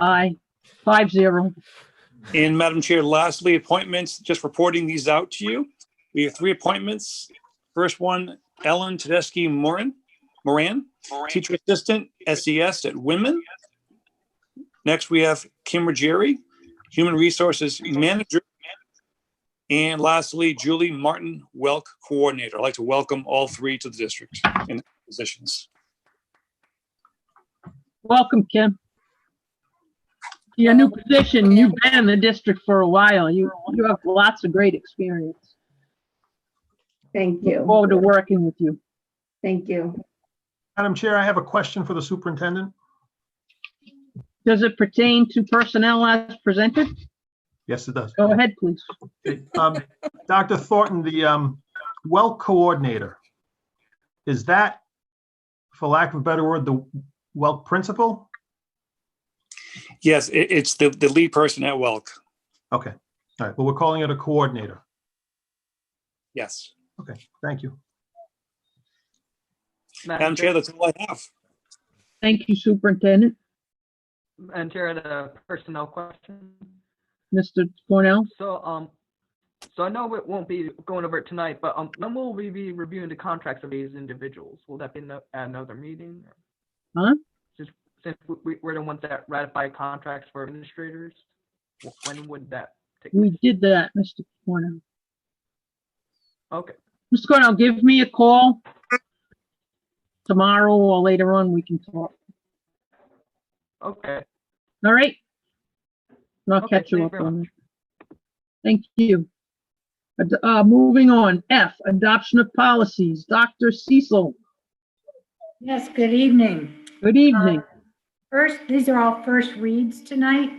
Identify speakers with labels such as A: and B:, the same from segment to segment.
A: Aye, five zero.
B: And Madam Chair, lastly, appointments, just reporting these out to you. We have three appointments. First one, Ellen Tedeschi Moran, Moran, teacher assistant, SES at Women. Next, we have Kim Ruggieri, human resources manager. And lastly, Julie Martin, Welk coordinator. I'd like to welcome all three to the district in positions.
A: Welcome, Kim. To Your new position, you've been in the district for a while. You, you have lots of great experience.
C: Thank
A: Look
C: you.
A: Forward to working with you.
C: Thank you.
D: Madam Chair, I have a question for the superintendent.
A: Does it pertain to personnel as presented?
D: Yes, it does.
A: Go ahead, please.
D: Um, Dr. Thornton, the um, well coordinator, is that, for lack of a better word, the well principal?
B: Yes, it- it's the, the lead person at Welk.
D: Okay, all right, well, we're calling it a coordinator.
B: Yes.
D: Thank you.
B: Madam Chair, that's all I have.
A: Thank you, Superintendent.
E: Madam Chair, I had a personnel question.
A: Mr. Cornell,
E: So, um, so I know it won't be going over it tonight, but, um, when will we be reviewing the contracts of these individuals? Will that be no- at another meeting?
A: Huh?
E: Since, since we- we, we're the ones that ratify contracts for administrators, wh- when would that take?
A: we did that, Mr. Cornell.
E: Okay,
A: Mr. Cornell, give me a call tomorrow or later on, we can talk.
E: okay.
A: All right? And I'll
E: Okay,
A: catch you
E: thank
A: up
E: you very
A: on
E: much.
A: that. Thank you. Ad- Uh, moving on, F, adoption of policies. Dr. Cecil,
F: Yes, good evening.
A: good evening.
F: First, these are all first reads tonight.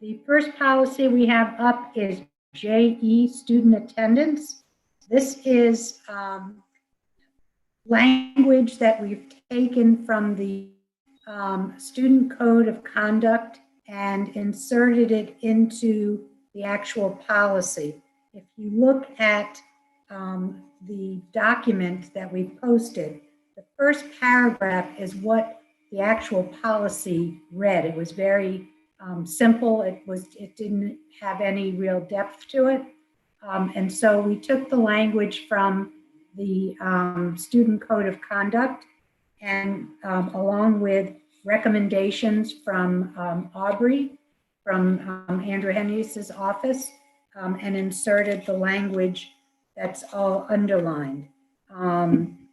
F: The first policy we have up is JE, student attendance. This is um, language that we've taken from the um, student code of conduct and inserted it into the actual policy. If you look at um, the document that we posted, the first paragraph is what the actual policy read. It was very um, simple. It was, it didn't have any real depth to it. Um, and so we took the language from the um, student code of conduct and um, along with recommendations from um, Aubrey, from um, Andrew Henrius's office, um, and inserted the language that's all underlined. Um,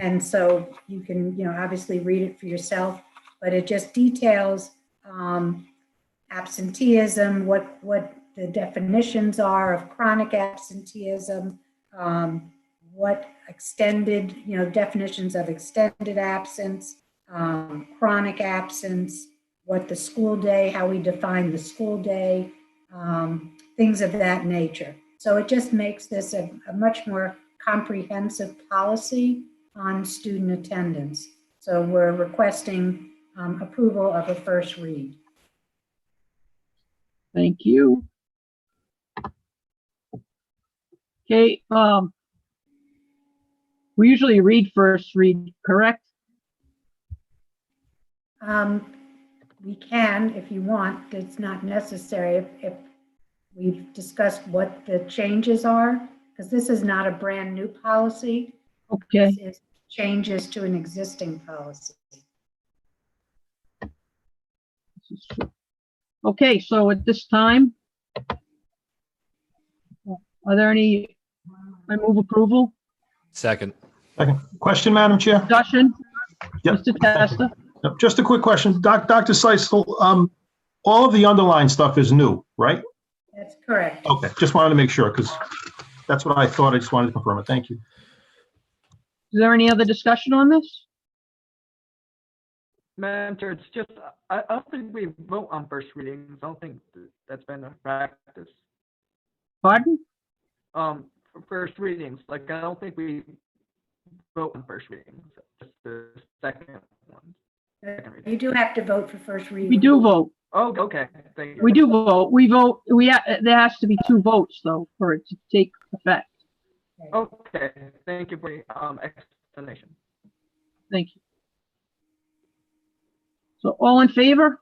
F: and so you can, you know, obviously read it for yourself, but it just details um, absenteeism, what, what the definitions are of chronic absenteeism, um, what extended, you know, definitions of extended absence, um, chronic absence, what the school day, how we define the school day, um, things of that nature. So it just makes this a, a much more comprehensive policy on student attendance. So we're requesting um, approval of a first read.
A: Thank you. Okay, um, we usually read first read, correct?
F: Um, We can, if you want, it's not necessary if- if we've discussed what the changes are, because this is not a brand-new policy.
A: Okay,
F: This is changes to an existing policy.
A: okay, so at this time, are there any, I move approval,
G: Second.
D: Second. Question, Madam Chair?
A: discussion?
D: Yep.
A: Mr. Testa,
D: Yep, Just a quick question. Doc- Dr. Seisel, um, all of the underlying stuff is new, right?
F: That's correct.
D: Okay, just wanted to make sure, because that's what I thought. I just wanted to confirm it. Thank you.
A: is there any other discussion on this?
E: Madam Chair, it's just, I, I don't think we vote on first readings. I don't think th- that's been a practice.
A: Pardon?
E: um, for first readings, like, I don't think we vote on first readings, just the second one. second reading.
F: You do have to vote for first reading.
A: We do vote.
E: Oh, okay, thank you.
A: We do vote. We vote, we, ha- there has to be two votes though for it to take effect.
E: Okay, thank you for your, um, explanation.
A: Thank you. So all in favor?